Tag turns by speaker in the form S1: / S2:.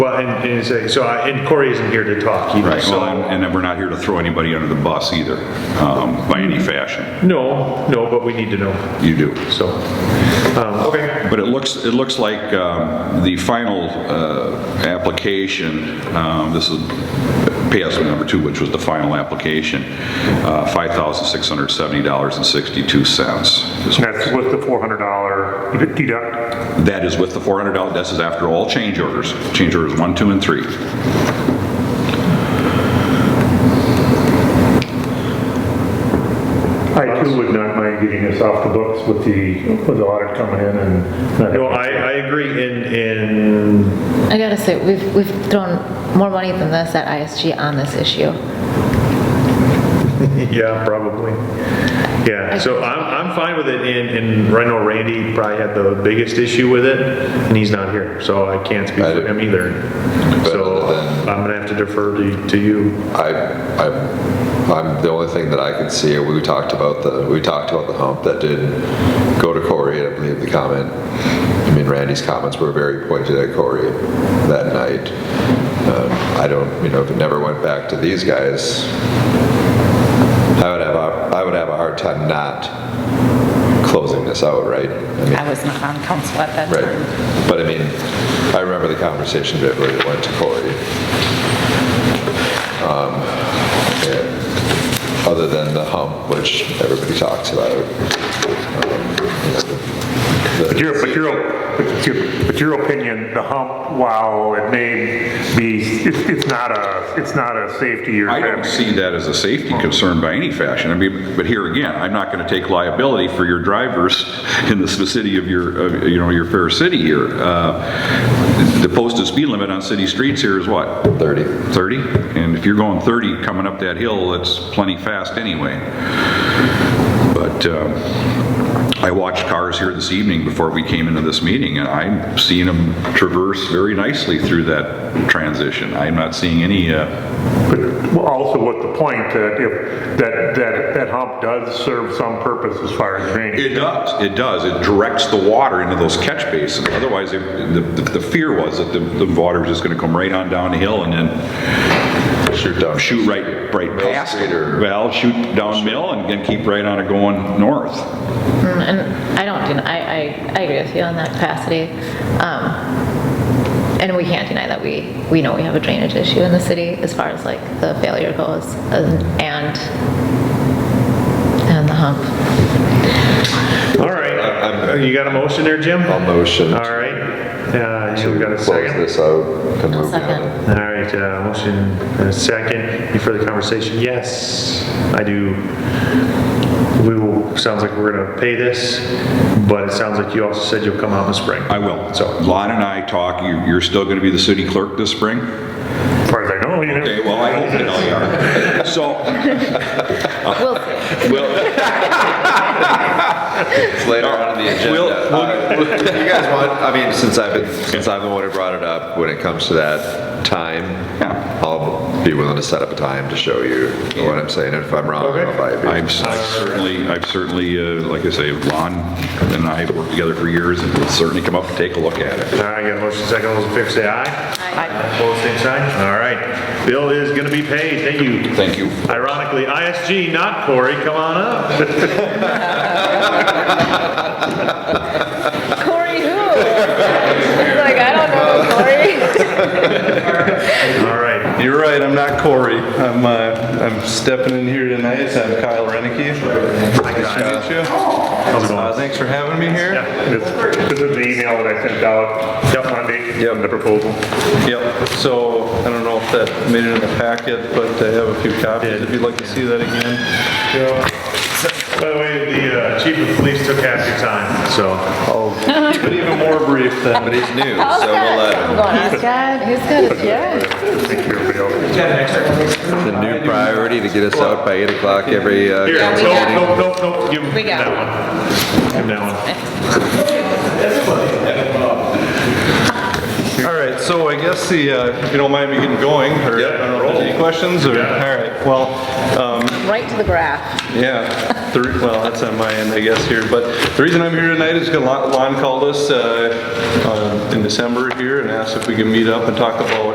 S1: Well, and, and say, so, I- and Corey isn't here to talk either,
S2: Right, well,
S1: so.
S2: and and we're not here to throw anybody under the bus either, um, by any fashion.
S1: No, no, but we need to know,
S2: You do.
S1: so, um, okay,
S2: But it looks, it looks like um, the final uh, application, um, this is PSO number two, which was the final application, uh, $5,670.62. is-
S3: And that's with the $400 deduct.
S2: That is with the $400, this is after all change orders, change orders one, two, and three.
S3: I too would not mind getting this off the books with the, with the audit coming in and. not-
S1: no, I, I agree, and, and,
S4: I gotta say, we've, we've thrown more money than this at ISG on this issue.
S1: yeah, probably. Yeah, so I'm, I'm fine with it, and, and I know Randy probably had the biggest issue with it, and he's not here, so I can't speak for him either. So, I'm gonna have to defer to, to you.
S5: I, I, I'm, the only thing that I can see, we talked about the, we talked about the hump that did go to Corey, and I believe the comment, I mean, Randy's comments were very pointed at Corey that night. Um, I don't, you know, if it never went back to these guys, I would have, a I would have a hard time not closing this out, right? I mean,
S6: I was not on council at that
S5: Right,
S6: time.
S5: but I mean, I remember the conversation vividly, it went to Corey. Um, yeah, Other than the hump, which everybody talks about.
S3: But your, but your, but your, but your opinion, the hump, wow, it may be, it's, it's not a, it's not a safety or.
S2: I don't see that as a safety concern by any fashion. I mean, but here again, I'm not going to take liability for your drivers in the vicinity of your, of, you know, your fair city here. Uh, The posted speed limit on city streets here is what?
S5: 30.
S2: 30? And if you're going 30 coming up that hill, that's plenty fast anyway. But um, I watched cars here this evening before we came into this meeting, and I'm seeing them traverse very nicely through that transition. I'm not seeing any uh,
S3: But also with the point that if, that, that, that hump does serve some purpose as far as drainage.
S2: It does, it does. It directs the water into those catch basins. Otherwise, it- the, the the fear was that the, the water was just gonna come right on down the hill and then
S5: Shoot down.
S2: shoot right, right
S5: Mill
S2: past
S5: Street
S2: it.
S5: or-
S2: Well, shoot down Mill and then keep right on it going north.
S4: Mm, And I don't, den- I, I, I agree with you on that capacity. Um, And we can't deny that we, we know we have a drainage issue in the city as far as like the failure goes and, and and the hump.
S1: All right, you got a motion there, Jim?
S5: I'll motion.
S1: All right, uh, you got a
S5: Close
S1: second?
S5: this out and
S4: I'll
S5: move
S4: second.
S5: on.
S1: All right, uh, motion and a second. Any further conversation? Yes, I do. We will, sounds like we're gonna pay this, but it sounds like you also said you'll come out in the spring.
S2: I will. So
S1: So,
S2: Lon and I talk, you, you're still gonna be the city clerk this spring?
S3: As far as I know, you know.
S2: Okay, well, I hope that I are. So,
S4: We'll see.
S2: well,
S5: It's later on in the
S2: We'll-
S5: agenda. Uh, You guys want, I mean, since I've been, since I'm the one who brought it up, when it comes to that time,
S2: Yeah.
S5: I'll be willing to set up a time to show you what I'm saying, and if I'm wrong, I'll buy a beer.
S2: I've I've certainly, I've certainly, uh, like I say, Lon and I have worked together for years and we'll certainly come up and take a look at it.
S1: all right, got a motion second. All those in favor say aye.
S6: I-
S1: Opposed, same sign. All right. Bill is gonna be paid. Thank you.
S2: Thank you.
S1: Ironically, ISG, not Corey. Come on up.
S4: Corey who? Like, I don't know Corey.
S1: All right.
S7: You're right, I'm not Corey. I'm, uh, I'm stepping in here tonight, I'm Kyle Reneke. Nice to meet you.
S1: How's it
S7: Uh,
S1: going?
S7: Thanks for having me here.
S3: This this is the email that I sent out Monday,
S7: Yep.
S3: the proposal.
S7: Yep, so I don't know if that made it in the packet, but I have a few copies if you'd like to see that again.
S1: By the way, the uh, chief of police took half your time, so.
S7: But even more brief than.
S5: But he's new,
S4: How's
S5: so we'll
S4: that
S5: let him.
S4: something going on? He's got, he's got a
S3: Thank you, everybody else.
S5: The new priority to get us out by 8 o'clock every, uh,
S1: Here,
S4: Yeah, we got it.
S1: no, no, no, no, give him
S4: We got
S1: that one. Give him that one.
S7: All right, so I guess the, uh, if you don't mind me getting going, or I don't know if there's any questions, or, all right, well, um,
S4: Right to the graph.
S7: yeah, the re- well, that's on my end, I guess, here, but the reason I'm here tonight is because Lon called us uh, uh, in December here and asked if we could meet up and talk about